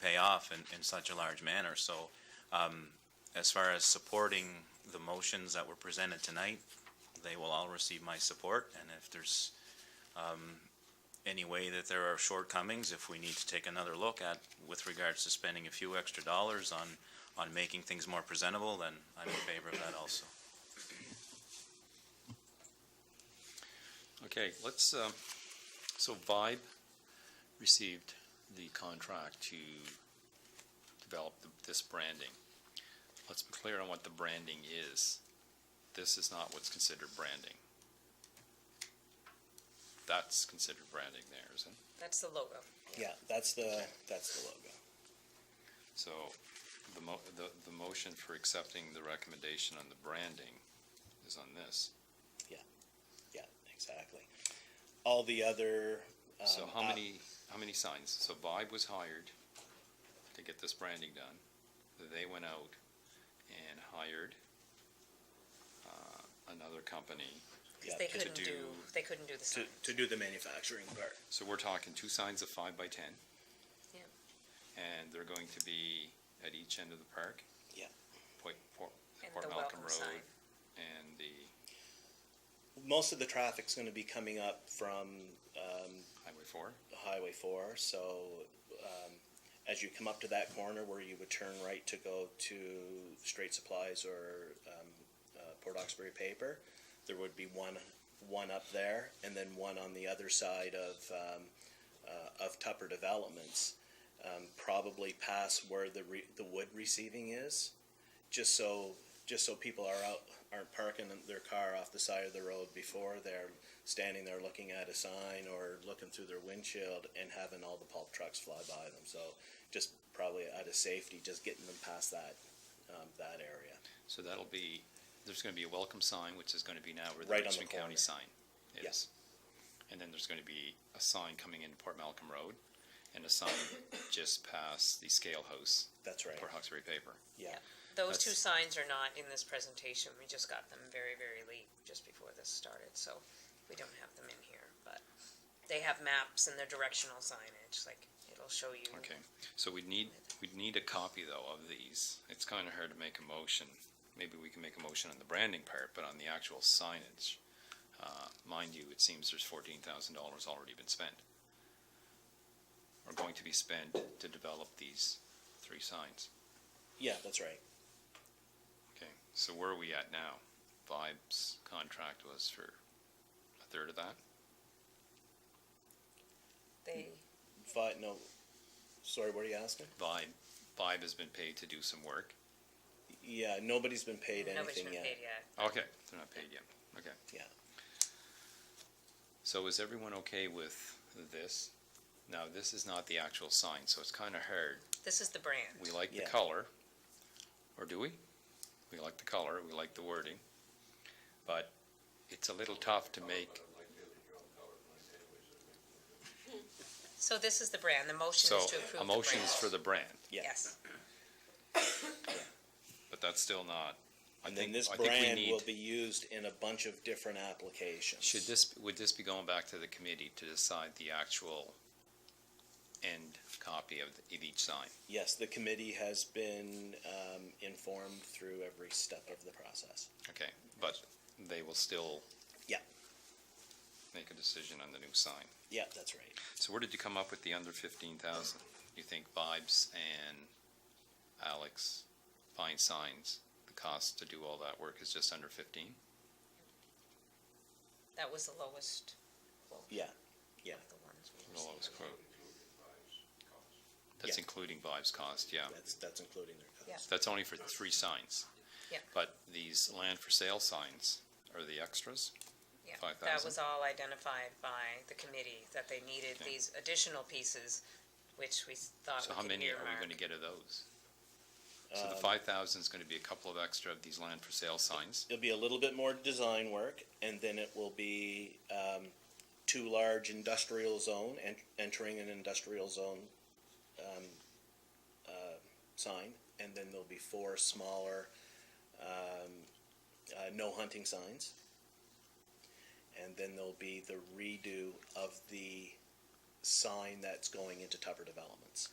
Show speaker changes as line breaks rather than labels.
pay off in, in such a large manner. So um, as far as supporting the motions that were presented tonight, they will all receive my support. And if there's um, any way that there are shortcomings, if we need to take another look at with regards to spending a few extra dollars on, on making things more presentable, then I'm in favor of that also.
Okay, let's, um, so Vibe received the contract to develop th- this branding. Let's be clear on what the branding is. This is not what's considered branding. That's considered branding there, isn't it?
That's the logo.
Yeah, that's the, that's the logo.
So the mo- the, the motion for accepting the recommendation on the branding is on this.
Yeah, exactly. All the other. um,
So how
out-
many, how many signs? So Vibe was hired to get this branding done. They went out and hired uh, another company.
uh, yeah,
They
to-
couldn't do,
do-
they couldn't do the
To,
sign.
to do the manufacturing part.
So we're talking two signs of five by ten.
Yeah.
And they're going to be at each end of the park.
Yeah.
Port, Port,
And
Port
the
Malcolm
welcome
Road
sign.
and the
Most of the traffic's gonna be coming up from, um,
Highway Four.
Highway four, so, um, as you come up to that corner where you would turn right to go to Straight Supplies or, um, uh, Port Oxbury Paper, there would be one, one up there, and then one on the other side of, um, uh, of Tupper Developments, um, probably past where the re- the wood receiving is, just so, just so people are out, aren't parking their car off the side of the road before they're standing there looking at a sign or looking through their windshield and having all the pulp trucks fly by them. So just probably out of safety, just getting them past that, um, that area.
So that'll be, there's gonna be a welcome sign, which is gonna be now where the
Right on the
Richmond County
corner.
sign
Yeah.
is. And then there's gonna be a sign coming into Port Malcolm Road and a sign just past the scale house,
That's right.
Port Hawkesbury Paper.
Yeah.
Those two
That's-
signs are not in this presentation. We just got them very, very late, just before this started, so we don't have them in here, but they have maps and their directional signage, like, it'll show you.
Okay, so we'd need, we'd need a copy though of these. It's kinda hard to make a motion. Maybe we can make a motion on the branding part, but on the actual signage. Uh, mind you, it seems there's fourteen thousand dollars already been spent. Or going to be spent to develop these three signs.
Yeah, that's right.
Okay, so where are we at now? Vibe's contract was for a third of that?
They,
But no, sorry, what are you asking?
Vibe, Vibe has been paid to do some work.
Yeah, nobody's been paid
nobody's
anything
been
yet.
paid yet.
Okay, they're not paid yet. Okay,
Yeah.
so is everyone okay with this? Now, this is not the actual sign, so it's kind of hard.
This is the brand.
We like the
Yeah.
color, or do we? We like the color, we like the wording, but it's a little tough to make.
So this is the brand. The motion
So,
is to approve the
a
brand.
motion is for the brand,
Yeah.
Yes,
but that's still not. I
And then
think-
this
I think we
brand
need-
will be used in a bunch of different applications.
Should this, would this be going back to the committee to decide the actual end copy of the- of each sign?
Yes, the committee has been, um, informed through every step of the process.
Okay, but they will still
Yeah,
make a decision on the new sign.
yeah, that's right.
So where did you come up with the under fifteen thousand? You think Vibes and Alex Fine Signs, the cost to do all that work is just under fifteen?
that was the lowest. quote,
Yeah, yeah.
The ones we
The lowest
received.
quote. That's
Yeah.
including Vibes cost, yeah.
That's, that's including their cost.
Yeah.
That's only for three signs.
Yeah.
But these land for sale signs are the extras?
Yeah, that
5,000?
was all identified by the committee, that they needed
Okay.
these additional pieces, which we s- thought
So how
we could
many are we gonna
earmark.
get of those? So the
Um,
five thousand is gonna be a couple of extra of these land for sale signs.
It'll be a little bit more design work, and then it will be, um, two large industrial zone, and entering an industrial zone, um, uh, sign, and then there'll be four smaller, um, uh, no hunting signs. And then there'll be the redo of the sign that's going into Tupper Developments.